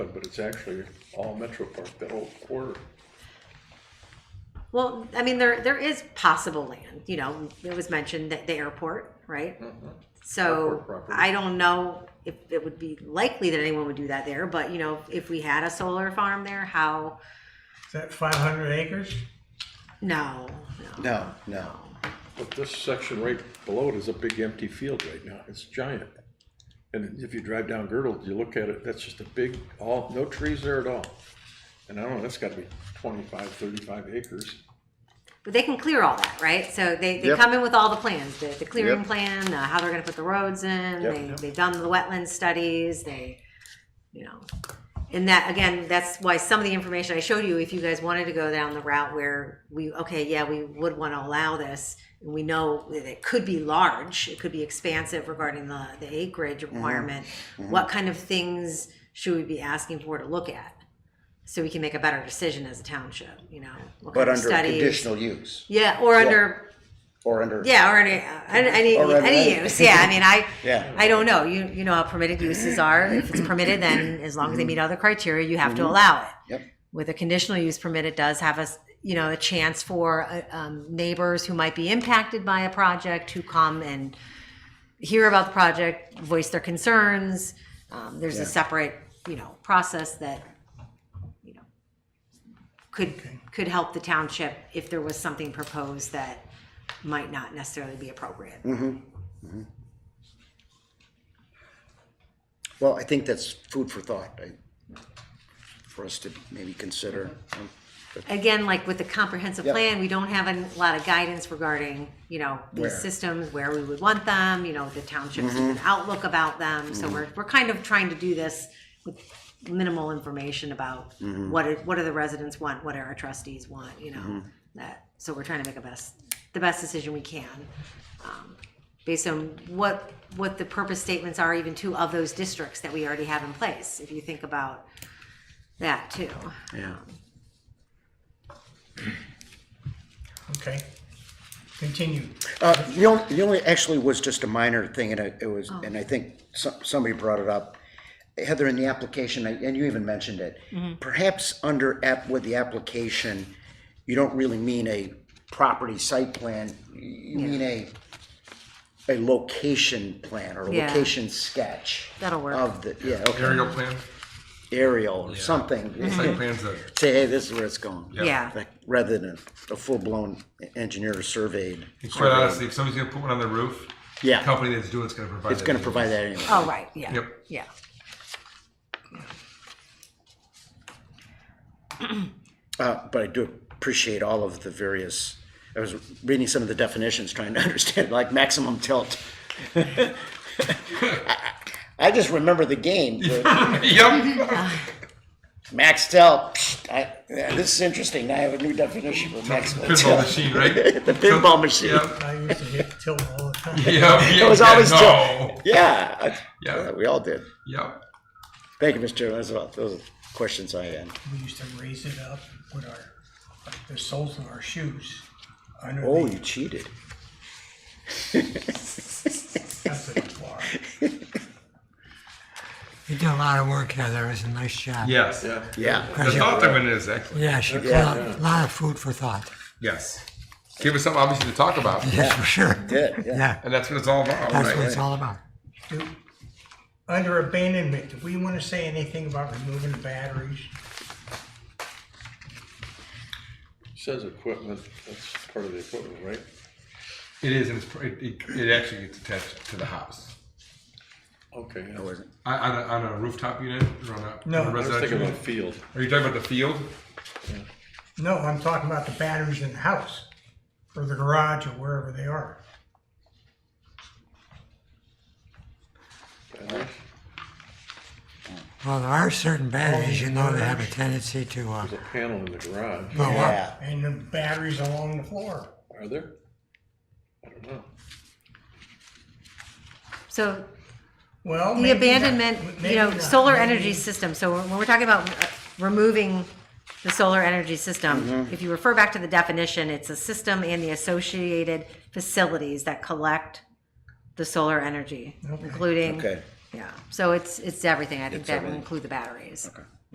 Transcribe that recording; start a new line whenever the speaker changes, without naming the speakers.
but it's actually all Metro Park, that whole quarter.
Well, I mean, there, there is possible land, you know, it was mentioned that the airport, right? So
Mm-hmm. Airport property.
I don't know if it would be likely that anyone would do that there, but you know, if we had a solar farm there, how,
Is that five hundred acres?
no, no.
No, no.
But this section right below it is a big empty field right now. It's giant. And if you drive down Girdle, you look at it, that's just a big, all, no trees there at all. And I don't know, that's gotta be 25, 35 acres.
But they can clear all that, right? So they, they
Yep.
come in with all the plans, the, the clearing
Yep.
plan, uh, how they're gonna put the roads in,
Yep.
they, they've done the wetland studies, they, you know. And that, again, that's why some of the information I showed you, if you guys wanted to go down the route where we, okay, yeah, we would wanna allow this, and we know that it could be large, it could be expansive regarding the, the acreage
Mm-hmm.
requirement, what kind of things should we be asking for to look at? So we can make a better decision as a township, you know? what
But
kind of
under
studies?
conditional use
Yeah, or under
or under.
yeah, or any any,
Or under
any
any.
use. Yeah, I mean, I
Yeah.
I don't know. You you know how permitted uses are. If it's permitted, then as long as they meet other criteria, you have to allow it.
Mm-hmm. Yep.
With a conditional use permit, it does have a s- you know a chance for uh, um, neighbors who might be impacted by a project to come and hear about the project, voice their concerns. Um, there's a separate you know process that you know could could help the township if there was something proposed that might not necessarily be appropriate.
Well, I think that's food for thought, I, for us to maybe consider. Um,
Again, like with the comprehensive
Yep.
plan, we don't have a lot of guidance regarding, you know,
Where? Mm-hmm.
these systems, where we would want them, you know, the township's outlook about them. So we're, we're kind of trying to do this with minimal information about
Mm-hmm.
what, are- what do the residents want, what do our trustees want, you know? That, so we're trying to make a best, the best decision we can. um, Based on what, what the purpose statements are even two of those districts that we already have in place, if you think about that too.
Yeah.
Okay, continue.
Uh, the only, the only, actually was just a minor thing, and I- it was,
Oh.
and I think so- somebody brought it up. Heather, in the application, I- and you even mentioned it,
Mm-hmm.
perhaps under app, with the application, you don't really mean a property site plan, you mean a, a location plan or
Yeah.
location sketch.
That'll work.
Of the, yeah, okay,
aerial plan,
aerial or something,
site plans that,
say, hey, this is where it's going.
Yeah.
Like, Rather than a full-blown engineer surveyed,
and quite honestly, if somebody's gonna put one on the roof, the
yeah,
company that's doing it's gonna provide.
it's
that
gonna
to you.
provide that anyway.
Oh, right, yeah.
Yep.
Yeah.
Uh, but I do appreciate all of the various, I was reading some of the definitions, trying to understand, like maximum tilt. I just remember the game, the
Yep,
max tilt, psh, I, yeah, this is interesting, I have a new definition for maximum
pinball
tilt.
machine, right? The
pinball machine.
Yep,
I used to hit tilt all the time.
yep, yep.
It was always
yeah,
tilt,
no.
yeah, I-
Yeah.
yeah, we all did.
Yep,
Thank you, Mr. Chairman, that's about, those are the questions I had.
We used to raise it up with our, like the soles of our shoes under
Oh,
the,
you cheated.
that's the floor.
You did a lot of work, Heather. It was a nice job.
yes.
Yeah.
Yeah,
The thought of it is excellent,
Yeah, she put out a lot of food for thought.
yes. Give us something obviously to talk about,
That's for sure.
did, yeah.
Yeah,
and that's what it's all about,
that's what
right?
it's all about.
Do- Under abandonment, do we wanna say anything about removing the batteries?
Says equipment, that's part of the equipment, right?
It is, and it's, pr- it, it- it actually gets attached to the house.
Okay. yeah.
I wasn't,
On, on a, on a rooftop unit, or on a-
No.
on
I was
I
a residential,
thinking about
unit?
field.
are you talking about the field?
No, I'm talking about the batteries in the house, or the garage, or wherever they are.
Well, there are certain batteries, you know, that have a tendency to uh,
There's a panel in the garage.
blow up.
yeah.
And the batteries along the floor.
Are there? I don't know.
So
Well,
the
maybe not.
abandonment, you
Maybe
know,
not.
solar
Maybe-
energy system, so when we're talking about uh, removing the solar energy system, if you refer back to the definition, it's a system and the associated facilities that collect the solar energy, including
Okay.
Yeah, so it's, it's everything. I think that will
everything.
include the batteries.